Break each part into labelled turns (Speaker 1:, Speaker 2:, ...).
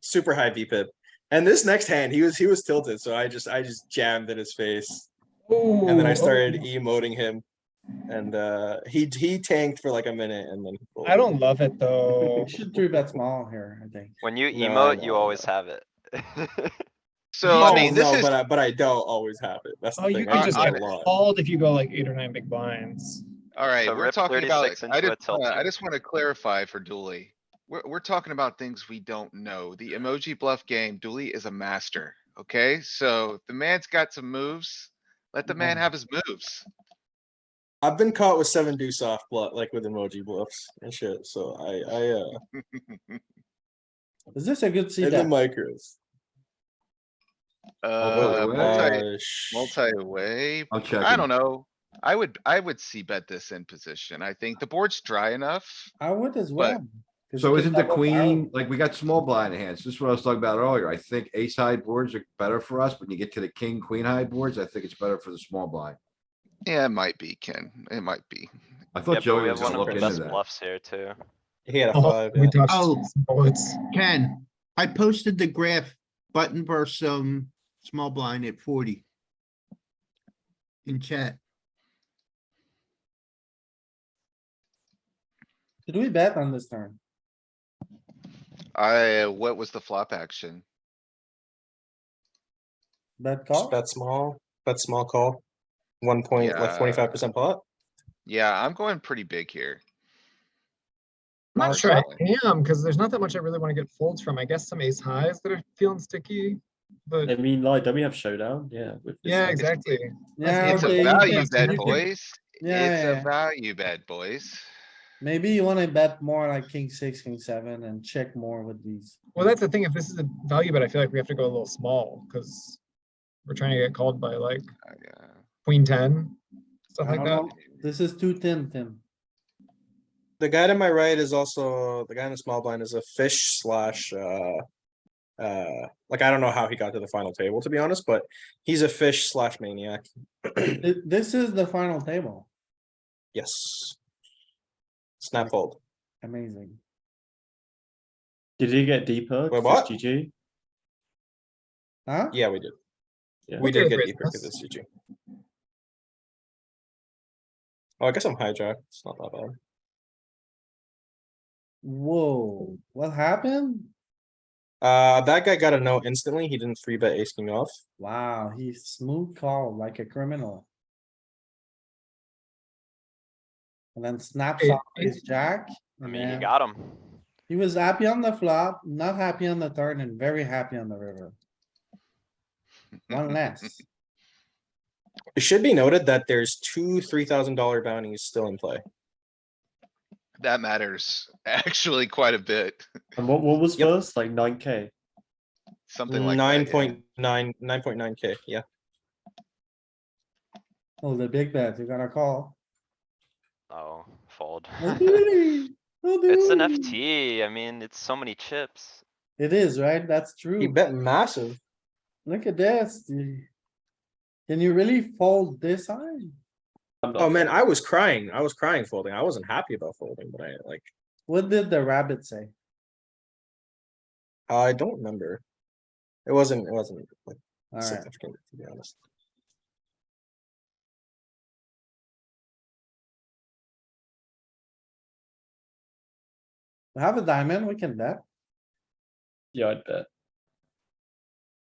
Speaker 1: super high VPIP. And this next hand, he was he was tilted, so I just I just jammed in his face, and then I started emoting him, and uh, he he tanked for like a minute, and then he folded.
Speaker 2: I don't love it though.
Speaker 3: You should three bet small here, I think.
Speaker 4: When you
Speaker 1: No, I
Speaker 4: emote,
Speaker 1: know,
Speaker 4: you
Speaker 1: I
Speaker 4: always have it.
Speaker 5: So
Speaker 1: No,
Speaker 5: I mean, this
Speaker 1: no,
Speaker 5: is
Speaker 1: but I, but I don't always have it. That's the
Speaker 2: Oh, you
Speaker 1: thing.
Speaker 2: could
Speaker 1: I
Speaker 2: just
Speaker 1: have
Speaker 5: get
Speaker 1: a lot.
Speaker 2: Called if you go like eight or nine big blinds.
Speaker 5: all right.
Speaker 4: So
Speaker 5: We're
Speaker 4: rip
Speaker 5: talking about.
Speaker 4: 36
Speaker 5: I
Speaker 4: into a
Speaker 5: just, wanna- I
Speaker 4: tilt.
Speaker 5: just want to clarify for Dooley. We're we're talking about things we don't know. The emoji bluff game. Dooley is a master. Okay, so the man's got some moves. Let the man
Speaker 1: Mm-hmm.
Speaker 3: Mhm.
Speaker 5: have his moves.
Speaker 1: I've been caught with seven do soft bluff, like with emoji bluffs and shit. So I I uh
Speaker 3: Is this a good C
Speaker 1: in the
Speaker 3: bet?
Speaker 1: micros.
Speaker 5: Uh, multi,
Speaker 1: Uh, sh-
Speaker 5: multi-way.
Speaker 6: I'll check.
Speaker 5: I don't know. I would, I would see bet this in position. I think the board's dry enough.
Speaker 3: I would as well. 'cause
Speaker 6: So
Speaker 3: you
Speaker 6: isn't the
Speaker 3: double barrel.
Speaker 6: queen, like, we got small blind hands. This is what I was talking about earlier. I think ace high boards are better for us. When you get to the king, queen high boards, I think it's better for the small blind.
Speaker 5: Yeah, it might be, Ken. It might be.
Speaker 6: I
Speaker 4: Yeah,
Speaker 6: thought
Speaker 4: but we
Speaker 6: Joey was
Speaker 4: have one
Speaker 6: gonna
Speaker 4: of
Speaker 6: look
Speaker 4: the
Speaker 6: into
Speaker 4: best
Speaker 6: that.
Speaker 4: bluffs here too.
Speaker 1: He had a
Speaker 2: Oh,
Speaker 1: five.
Speaker 2: we
Speaker 1: yeah.
Speaker 2: dodged
Speaker 7: Oh.
Speaker 2: some bullets.
Speaker 7: Ken, I posted the graph button versus um small blind at forty. In chat,
Speaker 3: Did we bet on this turn?
Speaker 5: I, uh, what was the flop action?
Speaker 3: Bet
Speaker 1: Just
Speaker 3: call?
Speaker 1: Bet small, bet small call. One point, like
Speaker 5: Yeah.
Speaker 1: twenty-five percent pot.
Speaker 5: Yeah, I'm going pretty big here.
Speaker 2: I'm not sure I
Speaker 5: Personally.
Speaker 2: am, because there's not that much I really want to get folds from. I guess some ace highs that are feeling sticky,
Speaker 8: I
Speaker 2: but
Speaker 8: mean, like, don't we have showdown? Yeah. with this
Speaker 2: yeah,
Speaker 8: hand.
Speaker 2: exactly.
Speaker 3: Yeah,
Speaker 5: It's
Speaker 3: okay,
Speaker 5: a
Speaker 3: you
Speaker 5: value
Speaker 3: bet-
Speaker 5: bet, boys. It's
Speaker 3: Yeah,
Speaker 5: a
Speaker 3: yeah.
Speaker 5: value bet, boys.
Speaker 3: Maybe you wanna bet more like king six, king seven and check more with these.
Speaker 2: Well, that's the thing. If this is a value bet, I feel like we have to go a little small because we're trying to get called by like
Speaker 5: Uh, yeah.
Speaker 2: queen ten, stuff
Speaker 3: I
Speaker 2: like
Speaker 3: don't
Speaker 2: that.
Speaker 3: know. This is too thin, Tim.
Speaker 1: The guy to my right is also, the guy in the small blind is a fish slash, uh, uh, like, I don't know how he got to the final table, to be honest, but he's a fish slash maniac.
Speaker 3: Th- This is the final table.
Speaker 1: Yes. Snap fold.
Speaker 3: Amazing.
Speaker 8: Did he get deeper?
Speaker 1: Wait,
Speaker 8: 'Cause
Speaker 1: what?
Speaker 8: it's GG.
Speaker 3: Huh?
Speaker 1: Yeah, we did.
Speaker 8: Yeah.
Speaker 1: We did
Speaker 2: Okay,
Speaker 1: get
Speaker 2: Chris,
Speaker 1: deeper because
Speaker 2: that's-
Speaker 1: it's GG. Oh, I guess I'm hijacked. It's not that bad.
Speaker 3: Whoa, what happened?
Speaker 1: Uh, that guy got a no instantly. He didn't three bet ace king off.
Speaker 3: Wow, he smooth called like a criminal. And then snaps
Speaker 2: It-
Speaker 3: off his jack.
Speaker 4: I mean, you
Speaker 3: and
Speaker 4: got him.
Speaker 3: He was happy on the flop, not happy on the turn and very happy on the river. One less.
Speaker 1: It should be noted that there's two three thousand dollar bounties still in play.
Speaker 5: That matters actually quite a bit.
Speaker 8: And what, what was
Speaker 1: Yep.
Speaker 8: first? Like 9K.
Speaker 5: Something like. that,
Speaker 1: Nine
Speaker 5: yeah.
Speaker 1: point nine, nine point nine K, yeah.
Speaker 3: Oh, the big bet, you gotta call.
Speaker 4: Oh, fold.
Speaker 3: Oh,
Speaker 4: It's
Speaker 3: doody, oh,
Speaker 4: an
Speaker 3: doody.
Speaker 4: FT. I mean, it's so many chips.
Speaker 3: It is, right? That's
Speaker 1: He
Speaker 3: true.
Speaker 1: bet massive.
Speaker 3: Look at this. you- Can you really fold this high?
Speaker 8: I'm not
Speaker 1: Oh man,
Speaker 8: folding.
Speaker 1: I was crying. I was crying folding. I wasn't happy about folding, but I like,
Speaker 3: What did the rabbit say?
Speaker 1: I don't remember. It wasn't, it wasn't like
Speaker 3: Alright,
Speaker 1: significant, to be honest.
Speaker 3: we have a diamond, we can bet.
Speaker 8: Yeah, I'd bet.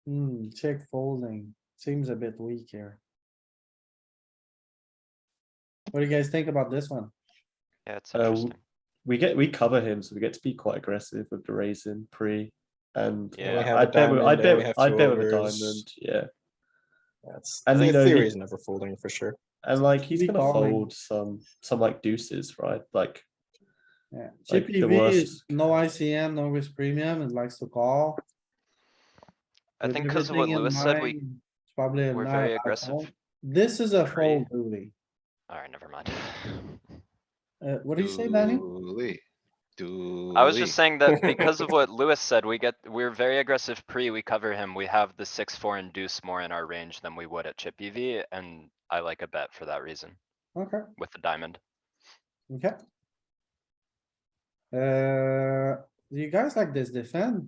Speaker 3: Hmm, check folding. Seems a bit weak here. What do you guys think about this one?
Speaker 4: Yeah, it's
Speaker 8: Uh, w-
Speaker 4: interesting.
Speaker 8: We get we cover him, so we get to be quite aggressive with the raising pre, and
Speaker 4: Yeah. We
Speaker 8: yeah,
Speaker 1: have a
Speaker 8: I bet with-
Speaker 1: diamond
Speaker 8: I
Speaker 1: and we
Speaker 8: bet
Speaker 1: have
Speaker 8: I
Speaker 1: two
Speaker 8: bet with a
Speaker 1: overs.
Speaker 8: diamond. Yeah,
Speaker 1: That's,
Speaker 8: And
Speaker 1: the
Speaker 8: you know,
Speaker 1: theory
Speaker 8: he-
Speaker 1: is never folding for sure.
Speaker 8: and like he's
Speaker 3: Be
Speaker 8: gonna
Speaker 3: calling.
Speaker 8: fold some some like deuces, right? Like
Speaker 3: Yeah,
Speaker 8: Like, the
Speaker 3: GPV is
Speaker 8: worst.
Speaker 3: no ICM, no risk premium, it likes to call.
Speaker 4: I
Speaker 3: With
Speaker 4: think because of what
Speaker 3: everything in
Speaker 4: Lewis said, we,
Speaker 3: mind, it's Probably. a
Speaker 4: we're
Speaker 3: nine
Speaker 4: very
Speaker 3: out
Speaker 4: aggressive.
Speaker 3: fold. This is a
Speaker 4: Three.
Speaker 3: fold, Dooley.
Speaker 4: alright, never mind.
Speaker 3: Uh, what do you say, Danny?
Speaker 5: Dooley.
Speaker 4: I was just
Speaker 5: Dooley.
Speaker 4: saying that because of what Lewis said, we get, we're very aggressive pre, we cover him. We have the six, four and deuce more in our range than we would at chip EV. And I like a bet for that reason
Speaker 3: Okay,
Speaker 4: with the diamond.
Speaker 3: okay. Uh, do you guys like this defend?